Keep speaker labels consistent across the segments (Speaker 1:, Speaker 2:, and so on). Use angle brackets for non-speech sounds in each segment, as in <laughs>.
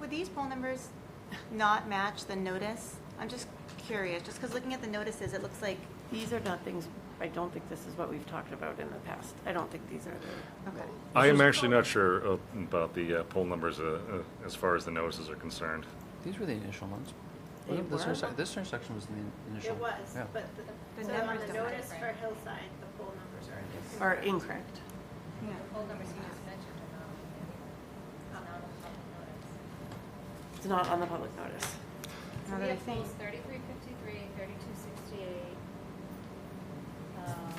Speaker 1: would these poll numbers not match the notice? I'm just curious, just because looking at the notices, it looks like,
Speaker 2: These are not things, I don't think this is what we've talked about in the past. I don't think these are the.
Speaker 1: okay.
Speaker 3: I am actually not sure uh, about the uh, poll numbers uh, uh, as far as the notices are concerned.
Speaker 4: These were the initial ones.
Speaker 2: They
Speaker 4: Wasn't This
Speaker 2: were?
Speaker 4: intersection, this intersection was the in- initial.
Speaker 5: It was,
Speaker 4: yeah.
Speaker 5: but
Speaker 1: The
Speaker 5: the, so on
Speaker 1: numbers
Speaker 5: the
Speaker 1: don't
Speaker 5: notice
Speaker 6: match,
Speaker 5: for
Speaker 6: right?
Speaker 5: Hillside, the poll numbers are different.
Speaker 2: Are incorrect.
Speaker 1: Yeah.
Speaker 6: The poll numbers you just mentioned are not, it's
Speaker 2: It's not
Speaker 6: not on public notice.
Speaker 2: on the public notice.
Speaker 1: Now
Speaker 6: So we
Speaker 1: that I
Speaker 6: have polls
Speaker 1: think-
Speaker 6: thirty-three fifty-three, thirty-two sixty-eight. Um,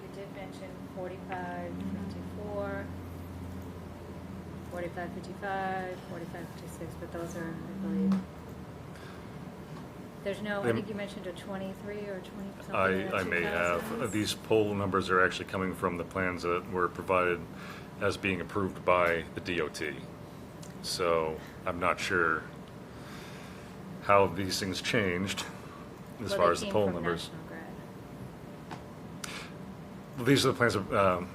Speaker 6: we did mention forty-five fifty-four, forty-five fifty-five, forty-five fifty-six, but those are, I believe. There's no, I
Speaker 3: They-
Speaker 6: think you mentioned a twenty-three or twenty something.
Speaker 3: I,
Speaker 6: in the
Speaker 3: I may have. Uh,
Speaker 6: 2000s.
Speaker 3: These poll numbers are actually coming from the plans that were provided as being approved by the DOT. So I'm not sure how these things changed as
Speaker 6: Well,
Speaker 3: far
Speaker 6: they
Speaker 3: as the
Speaker 6: came
Speaker 3: poll
Speaker 6: from
Speaker 3: numbers.
Speaker 6: National Grid.
Speaker 3: These are the plans, of, um,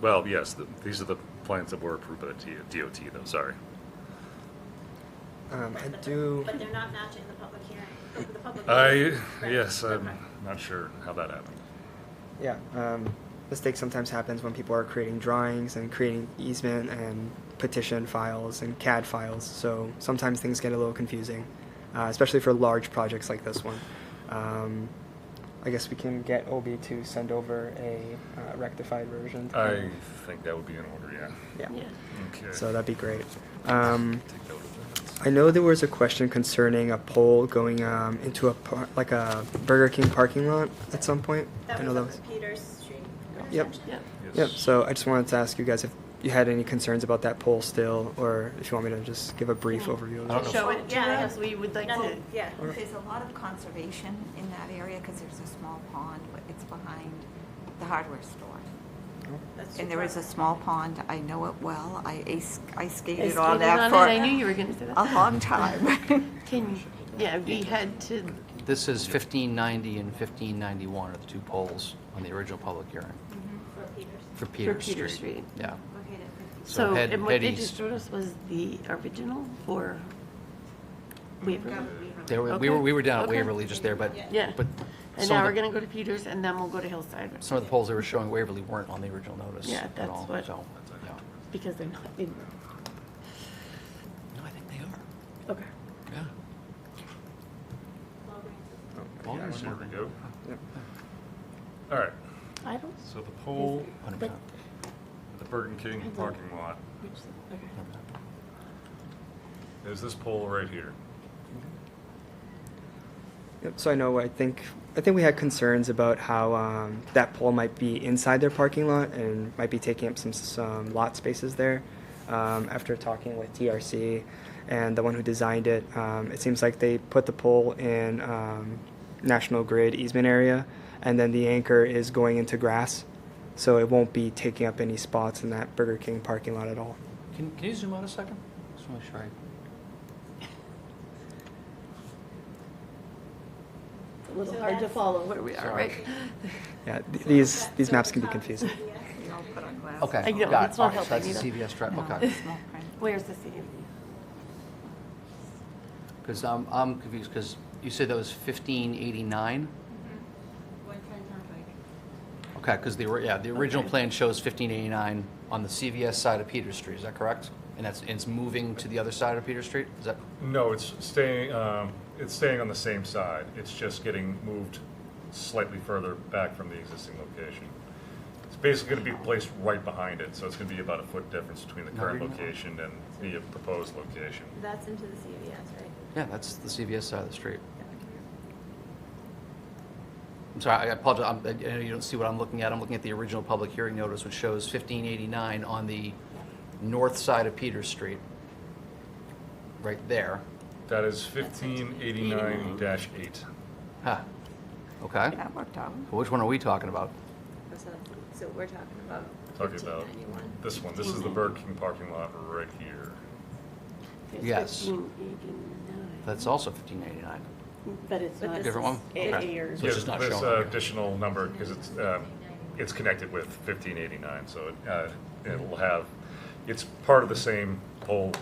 Speaker 3: well, yes, th- these are the plans that were approved by the DOT though, sorry.
Speaker 7: Um, I
Speaker 5: But the-
Speaker 7: do,
Speaker 5: But they're not matching the public hearing, the public.
Speaker 3: I,
Speaker 5: notice. Right.
Speaker 3: yes, I'm
Speaker 5: Okay.
Speaker 3: not sure how that happened.
Speaker 7: yeah, um, mistake sometimes happens when people are creating drawings and creating easement and petition files and CAD files. So sometimes things get a little confusing, uh, especially for large projects like this one. Um, I guess we can get Obi to send over a uh, rectified version. to
Speaker 3: I
Speaker 7: him.
Speaker 3: think that would be in order, yeah.
Speaker 7: Yeah.
Speaker 2: Yeah.
Speaker 3: Okay.
Speaker 7: Um, So that'd be great. Um,
Speaker 3: Take that with the minutes.
Speaker 7: I know there was a question concerning a pole going um, into a par- like a Burger King parking lot at some point.
Speaker 5: That
Speaker 7: I know
Speaker 5: was up at Peters Street.
Speaker 7: Yep.
Speaker 5: intersection.
Speaker 2: Yeah.
Speaker 7: Yep,
Speaker 3: Yes.
Speaker 7: so I just wanted to ask you guys if you had any concerns about that poll still, or if you want me to just give a brief overview of
Speaker 4: I don't
Speaker 7: that.
Speaker 4: know.
Speaker 2: Show it to
Speaker 5: Yeah,
Speaker 2: us. We would like
Speaker 5: No,
Speaker 2: to.
Speaker 5: Yeah.
Speaker 8: There's a lot of conservation in that area because there's a small pond, but it's behind the hardware store.
Speaker 7: Oh,
Speaker 5: that's
Speaker 8: And
Speaker 5: your
Speaker 8: there is a
Speaker 5: problem.
Speaker 8: small pond, I know it well, I ace- I skated
Speaker 2: I
Speaker 8: on
Speaker 2: skated
Speaker 8: that
Speaker 2: on it. I
Speaker 8: for
Speaker 2: knew you were going to say that.
Speaker 8: a long <laughs> time.
Speaker 2: Can, yeah, we had to,
Speaker 4: This is 1590 and 1591 are the two polls on the original public hearing
Speaker 5: For Peters.
Speaker 4: for Peters Street.
Speaker 2: Peters Street.
Speaker 4: Yeah.
Speaker 5: Located at 50.
Speaker 2: so,
Speaker 4: head-
Speaker 2: and what
Speaker 4: head
Speaker 2: they
Speaker 4: east.
Speaker 2: just showed us was the original for Waverly.
Speaker 4: There were- We were,
Speaker 2: Okay.
Speaker 4: we were down at
Speaker 2: Okay.
Speaker 4: Waverly just there, but.
Speaker 2: Yeah.
Speaker 4: But
Speaker 2: And
Speaker 4: some
Speaker 2: now we're
Speaker 4: of the,
Speaker 2: going to go to Peters and then we'll go to Hillside
Speaker 4: some of the polls they were showing Waverly weren't on the original notice
Speaker 2: Yeah,
Speaker 4: at
Speaker 2: that's
Speaker 4: all,
Speaker 2: what-
Speaker 4: so, yeah.
Speaker 2: because they're not in.
Speaker 4: No, I think they are,
Speaker 2: Okay.
Speaker 4: yeah.
Speaker 7: Oh, yeah,
Speaker 4: Polls
Speaker 7: one
Speaker 3: There
Speaker 7: more.
Speaker 3: we
Speaker 4: were-
Speaker 3: go.
Speaker 7: Yep.
Speaker 3: All right,
Speaker 2: I don't.
Speaker 3: so the poll,
Speaker 4: 100%.
Speaker 3: the Burger King parking lot,
Speaker 2: which- okay.
Speaker 4: 100%.
Speaker 3: is this poll right here?
Speaker 7: Yep, so I know, I think, I think we had concerns about how um, that pole might be inside their parking lot and might be taking up some, some lot spaces there. Um, After talking with TRC and the one who designed it, um, it seems like they put the pole in um, National Grid easement area, and then the anchor is going into grass, so it won't be taking up any spots in that Burger King parking lot at all.
Speaker 4: Can, can you zoom out a second? Just want to make sure I.
Speaker 2: It's a little hard to follow where we are, right?
Speaker 7: Yeah, th- these, these maps can be confusing.
Speaker 4: Okay.
Speaker 2: I know,
Speaker 4: got it.
Speaker 2: it's not
Speaker 4: All right, so
Speaker 2: helping
Speaker 4: That's the
Speaker 2: either.
Speaker 4: CVS trap,
Speaker 8: No,
Speaker 2: <laughs>
Speaker 4: okay.
Speaker 8: it's small print.
Speaker 2: Where's the city?
Speaker 4: Because I'm, um, I'm confused, because you said that was fifteen eighty-nine? Okay, because the, ori- yeah, the original plan shows fifteen eighty-nine on the CVS side of Peter Street, is that correct? And that's, and it's moving to the other side of Peter Street, is that,
Speaker 3: No, it's staying, um, it's staying on the same side, it's just getting moved slightly further back from the existing location. It's basically gonna be placed right behind it, so it's gonna be about a foot difference between the
Speaker 4: No,
Speaker 3: current
Speaker 4: you're not.
Speaker 3: location and the proposed location.
Speaker 5: That's into the CVS, right?
Speaker 4: yeah, that's the CVS side of the street. I'm sorry, I apologize, I'm- I know you don't see what I'm looking at, I'm looking at the original public hearing notice, which shows fifteen eighty-nine on the north side of Peter Street, right there.
Speaker 3: That is fifteen eighty-nine dash eight.
Speaker 4: Huh, okay.
Speaker 8: That worked out.
Speaker 4: Well, Which one are we talking about?
Speaker 5: So- So we're talking about
Speaker 3: Talking about
Speaker 5: 1591.
Speaker 3: this one, this is the Burger King parking lot right here.
Speaker 2: It's
Speaker 4: Yes.
Speaker 2: 1589,
Speaker 4: That's also 1589.
Speaker 2: But it's
Speaker 5: But
Speaker 2: not.
Speaker 5: this
Speaker 4: Different one?
Speaker 2: It
Speaker 4: Okay.
Speaker 2: airs.
Speaker 4: So it's just
Speaker 3: Yeah,
Speaker 4: not
Speaker 3: this,
Speaker 4: shown
Speaker 3: uh,
Speaker 4: on here.
Speaker 3: Additional number, because it's, um, it's connected with fifteen eighty-nine, so it, uh, it'll have, it's part of the same whole